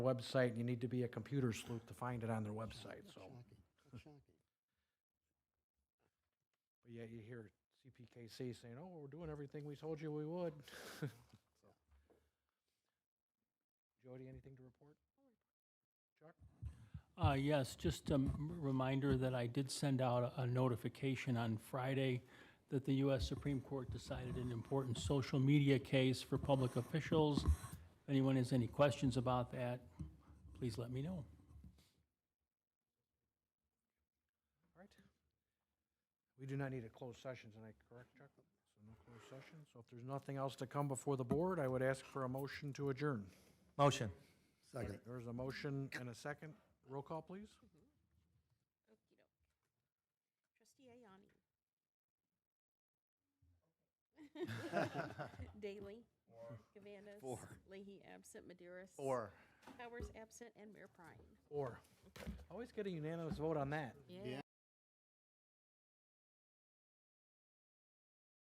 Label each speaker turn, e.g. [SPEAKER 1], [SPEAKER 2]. [SPEAKER 1] website, and you need to be a computer sleuth to find it on their website, so.
[SPEAKER 2] Shocking, that's shocking.
[SPEAKER 1] But yeah, you hear CPKC saying, oh, we're doing everything we told you we would. So. Jody, anything to report?
[SPEAKER 3] Uh, Yes, just a m- reminder that I did send out a notification on Friday that the U.S. Supreme Court decided an important social media case for public officials. If anyone has any questions about that, please let me know.
[SPEAKER 1] All right. We do not need a closed session tonight, correct, Chuck? So no closed session. So if there's nothing else to come before the board, I would ask for a motion to adjourn.
[SPEAKER 4] Motion.
[SPEAKER 2] Second.
[SPEAKER 1] There's a motion and a second. Roll call, please.
[SPEAKER 5] Trustee Ayani. Daly. Gavandes.
[SPEAKER 4] Four.
[SPEAKER 5] Leahy absent, Maderas.
[SPEAKER 4] Four.
[SPEAKER 5] Powers absent, and Mayor Prine.
[SPEAKER 1] Or, always get a unanimous vote on that.
[SPEAKER 2] Yeah.